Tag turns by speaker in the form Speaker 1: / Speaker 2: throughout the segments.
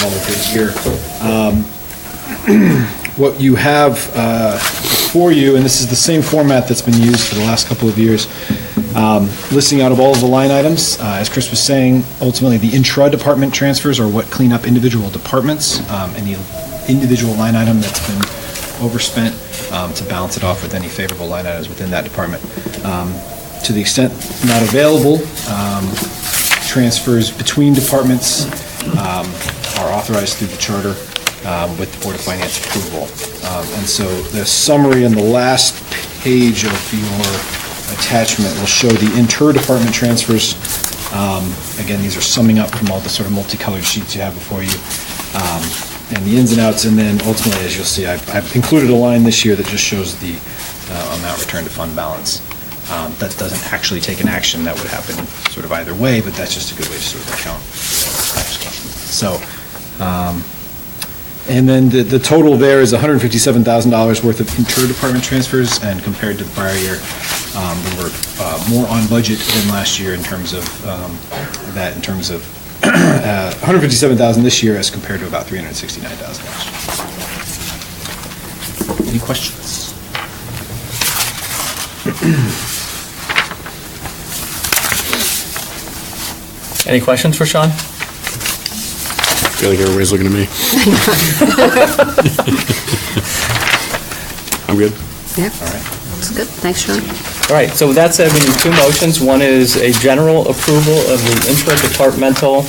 Speaker 1: another thing here. Um, What you have uh, before you, and this is the same format that's been used for the last couple of years, um, listing out of all of the line items, uh, as Chris was saying, ultimately, the intra-department transfers are what clean up individual departments, um, and the individual line item that's been overspent um, to balance it off with any favorable line items within that department. Um, To the extent not available, um, transfers between departments um, are authorized through the charter um, with the Board of Finance approval. Um, And so the summary in the last page of your attachment will show the inter-department transfers. Um, Again, these are summing up from all the sort of multicolored sheets you have before you, um, and the ins and outs. And then ultimately, as you'll see, I've I've included a line this year that just shows the uh, amount returned to fund balance. Um, That doesn't actually take an action, that would happen sort of either way, but that's just a good way to sort of account. So, um, and then the, the total there is $157,000 worth of inter-department transfers, and compared to the prior year, um, we were uh, more on budget than last year in terms of um, that, in terms of uh, $157,000 this year as compared to about $369,000 last year. Any questions?
Speaker 2: Any questions for Sean?
Speaker 3: I feel like everybody's looking at me. I'm good.
Speaker 4: Yeah,
Speaker 1: All right.
Speaker 4: it's good. Thanks, Sean.
Speaker 2: All right, so with that said, we need two motions. One is a general approval of the intra-departmental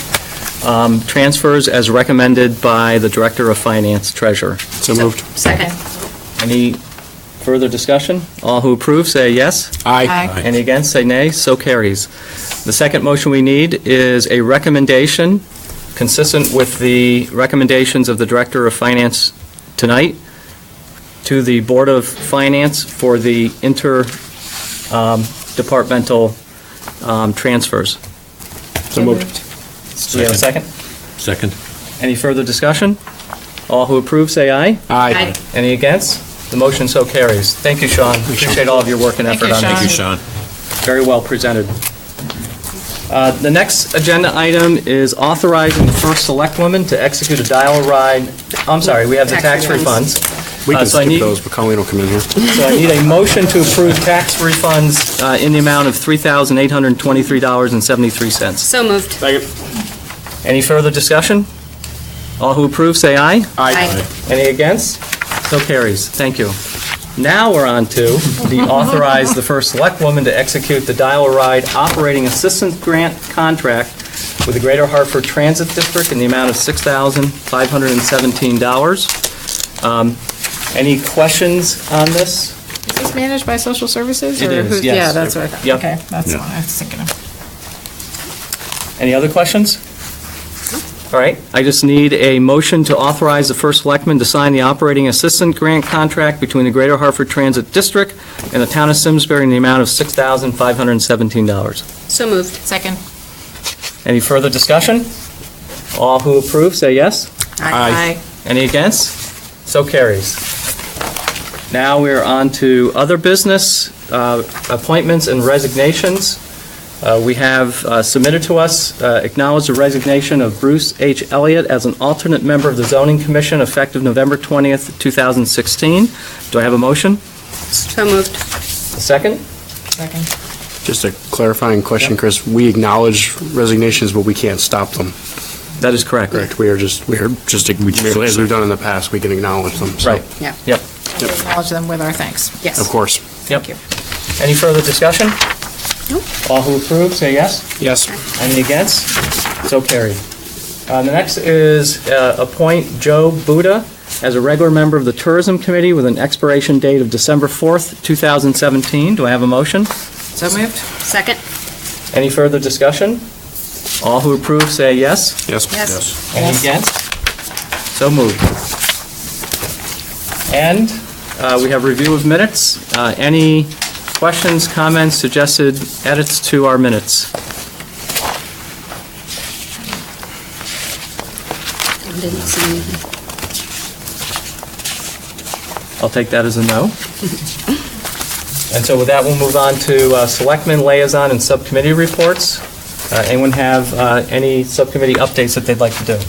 Speaker 2: um, transfers as recommended by the Director of Finance Treasurer.
Speaker 3: So moved.
Speaker 4: Second.
Speaker 2: Any further discussion? All who approve, say yes.
Speaker 3: Aye.
Speaker 2: Any against, say nay. So carries. The second motion we need is a recommendation, consistent with the recommendations of the Director of Finance tonight, to the Board of Finance for the interdepartmental um, transfers.
Speaker 3: So moved.
Speaker 2: Do we have a second?
Speaker 3: Second.
Speaker 2: Any further discussion? All who approve, say aye.
Speaker 3: Aye.
Speaker 2: Any against? The motion so carries. Thank you, Sean. Appreciate all of your work and effort on this.
Speaker 3: Sean.
Speaker 2: very well presented. Uh, The next agenda item is authorizing the first select woman to execute a dial ride, I'm sorry, we have the
Speaker 4: Tax
Speaker 2: tax refunds.
Speaker 3: We
Speaker 2: Uh,
Speaker 3: can
Speaker 2: so I
Speaker 3: skip
Speaker 2: need-
Speaker 3: those, but Colleen will come in here.
Speaker 2: So I need a motion to approve tax refunds uh, in the amount of $3,823.73.
Speaker 4: So moved.
Speaker 3: Second.
Speaker 2: Any further discussion? All who approve, say aye.
Speaker 4: Aye.
Speaker 2: Any against? So carries. Thank you. Now we're on to the authorize the first select woman to execute the Dial-A-Ride Operating Assistance Grant contract with the Greater Hartford Transit District in the amount of $6,517. Um, Any questions on this?
Speaker 5: Is this managed by social services?
Speaker 2: It
Speaker 5: or
Speaker 2: is,
Speaker 5: who-
Speaker 2: yes.
Speaker 5: Yeah, that's what I thought.
Speaker 2: Yep.
Speaker 5: Okay, that's
Speaker 3: Yeah.
Speaker 5: the one I was thinking of.
Speaker 2: Any other questions? All right, I just need a motion to authorize the first selectman to sign the operating assistant grant contract between the Greater Hartford Transit District and the town of Simsbury in the amount of $6,517.
Speaker 4: So moved.
Speaker 5: Second.
Speaker 2: Any further discussion? All who approve, say yes.
Speaker 3: Aye.
Speaker 2: Any against? So carries. Now we're on to other business, uh, appointments and resignations. Uh, We have uh, submitted to us, uh, acknowledge the resignation of Bruce H. Elliott as an alternate member of the Zoning Commission effective November 20th, 2016. Do I have a motion?
Speaker 4: So moved.
Speaker 2: A second?
Speaker 5: Second.
Speaker 3: Just a clarifying question, Chris. We acknowledge resignations, but we can't stop them,
Speaker 2: That is correct.
Speaker 3: correct? We are just, we are just, as we've done in the past, we can acknowledge them. so-
Speaker 2: Right.
Speaker 4: Yeah.
Speaker 2: Yep.
Speaker 5: We Acknowledge them with our thanks.
Speaker 4: Yes.
Speaker 3: Of course.
Speaker 2: Yep.
Speaker 5: Thank you.
Speaker 2: Any further discussion?
Speaker 4: Nope.
Speaker 2: All who approve, say yes.
Speaker 3: Yes.
Speaker 2: Any against? So carried. Uh, The next is uh, appoint Joe Buda as a regular member of the Tourism Committee with an expiration date of December 4th, 2017. Do I have a motion?
Speaker 5: So moved?
Speaker 4: Second.
Speaker 2: Any further discussion? All who approve say yes.
Speaker 3: Yes.
Speaker 4: Yes.
Speaker 2: Any against? So moved. And uh, we have review of minutes. Uh, Any questions, comments, suggested edits to our minutes?
Speaker 4: I didn't see anything.
Speaker 2: I'll take that as a no. And so with that, we'll move on to uh, Selectmen, Liaison, and Subcommittee Reports. Uh, Anyone have uh, any subcommittee updates that they'd like to do?